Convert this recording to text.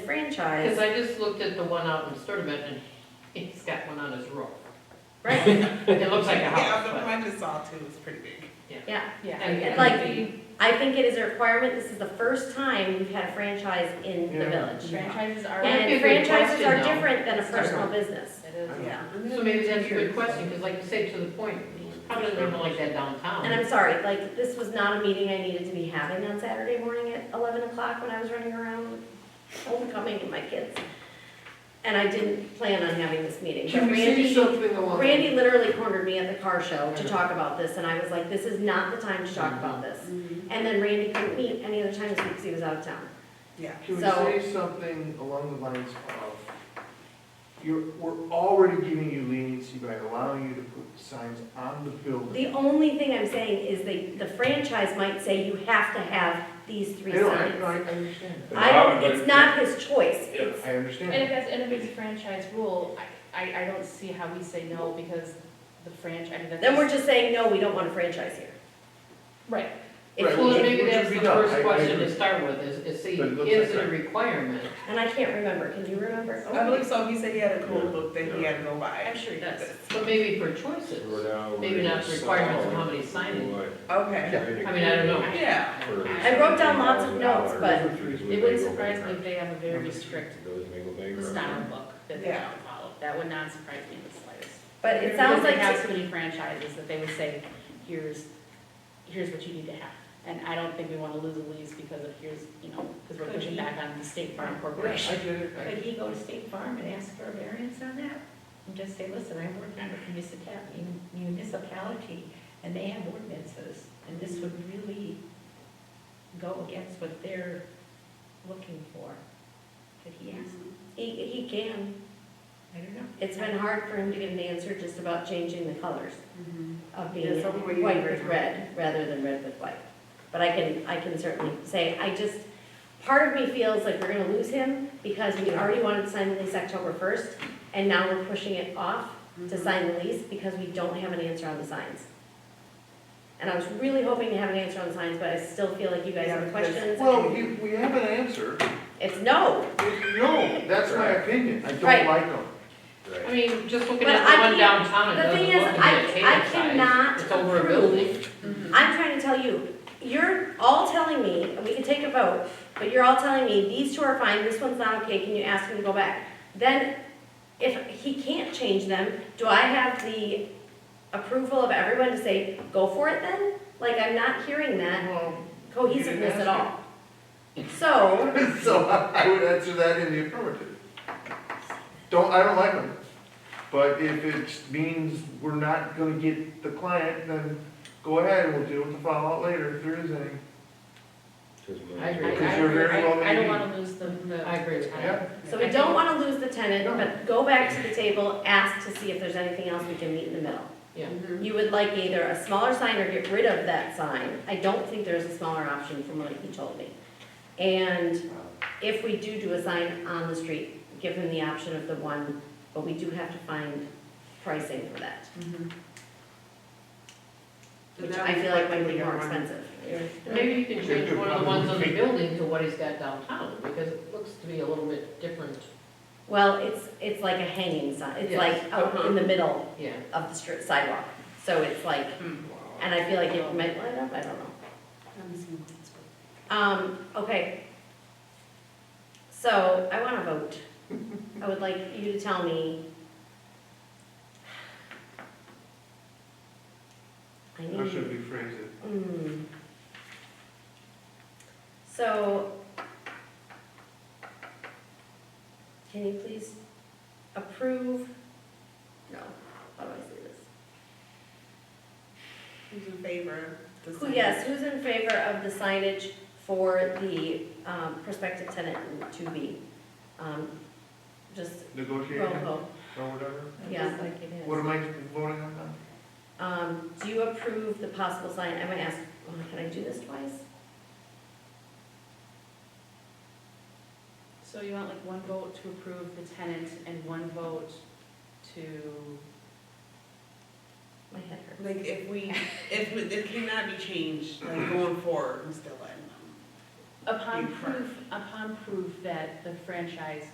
franchise. Because I just looked at the one out in Sturtevant and he's got one on his roof. Right, It looks like a Yeah, house, the but. one I just saw too is pretty big. yeah. and- and Like- the- I think it is a requirement, this is the first time we've had a franchise in the Yeah. village. Franchises are. That'd And be a good franchises question, are though. different than a Start personal with- business. It is. Yeah. So maybe that's a good question, because like you say, to the point, probably doesn't like that And downtown. I'm sorry, like, this was not a meeting I needed to be having on Saturday morning at eleven o'clock when I was running around homecoming and my kids. And I didn't plan on having this meeting, but Randy, something along? Randy literally cornered me at the car show to talk about this, and I was like, this is not the time to talk Mm-hmm. about this. And then Randy couldn't meet any other time this week because he was out of town. Yeah. Can we So- say something along the lines of, you're, we're already giving you leniency by allowing you to put signs on the building? The only thing I'm saying is the, the franchise might say you have to have these three No, no, I, no, I I signs. understand that. I don't, it's not his choice. It's- I And if understand. that's, and if it's a franchise rule, I, I, I don't see how we say no because the franchise, I mean, that's. Then we're just saying, no, we don't want a franchise here. Right, If Right. he- Well, maybe Which that's would the be done, I- first I question agree. to start with, is, is see, But it looks is like it a that. requirement? And I can't remember, can you remember? I believe so, he said he had a cool book that he had to go buy. I'm sure he does. But maybe for choices, maybe not the requirements of how many signage. Okay, I mean, I don't know. yeah. I wrote down lots of notes, but it wouldn't surprise me if they have a very strict style Style. book that they Yeah. don't follow, that would not surprise me in the slightest. But it sounds Because they have like, so many franchises that they would say, here's, here's what you need to have. And I don't think we wanna lose a lease because of here's, you know, because we're pushing back on the State Farm Corporation. I get it, I- Could he go to State Farm and ask for a variance on that? And just say, listen, I work on a municipality, municipality, and they have ordinances, and this would really go against what they're looking for. Could he ask? he, he can. I don't know. It's been hard for him to get an answer just about changing the colors of being Mm-hmm. Yeah, something we white need right with now. red, rather than red with white. But I can, I can certainly say, I just, part of me feels like we're gonna lose him because we already wanted to sign the lease October first, and now we're pushing it off to Mm-hmm. sign the lease because we don't have an answer on the signs. And I was really hoping to have an answer on the signs, but I still feel like you guys Yeah, have because- questions. well, and we, we have an answer. It's no, No, that's my opinion. I Right. don't like them. I mean, just looking But at I the one can't- downtown, it the doesn't thing look is, like I- a I table cannot size. It's over a approve building. I'm trying to tell you, you're all telling me, and we can take a vote, but you're all telling me, these two are fine, this one's not okay, can you ask him to go back? Then, if he can't change them, do I have the approval of everyone to say, go for it then? Like, I'm not hearing that Well, cohesiveness at all. So, So I would answer that in the affirmative. Don't, I don't like them. But if it means we're not gonna get the client, then go ahead and we'll deal with the fallout later if there is any. I I, I, agree. Because you're very well I- I don't meaning. wanna lose the, the. I agree. Yeah. so we don't wanna lose the tenant, but go back to the table, ask to see if there's anything else we can meet in the middle. Yeah. You would like either a smaller sign or get rid of that sign. I don't think there's a smaller option from what he told me. And if we do do a sign on the street, give him the option of the one, but we do have to find pricing for that, Mm-hmm. which I feel like might be more expensive. Maybe you can change one of the ones on the building to what he's got downtown, because it looks to be a little bit different, Well, it's, it's like a hanging sign, it's Yes. like out in the middle yeah. of the stri- sidewalk. So it's like, and I feel like it might light up, I don't know. Um, okay. So I wanna vote. I would like you to tell me. I How need, should we phrase it? mm. So. Can you please approve? No, how do I say this? Who's in favor? of the Who, sign? yes, who's in favor of the signage for the um, prospective tenant to be? um, Just roll Negotiating call. or whatever? Yeah. Just like it is. What am I voting on now? Um, Do you approve the possible sign, I might ask, oh, can I do this twice? So you want like one vote to approve the tenant and one vote to, My head hurts. Like if we, if we, it cannot be changed, like going forward, we still letting them. Upon Be frank. proof, upon proof that the franchise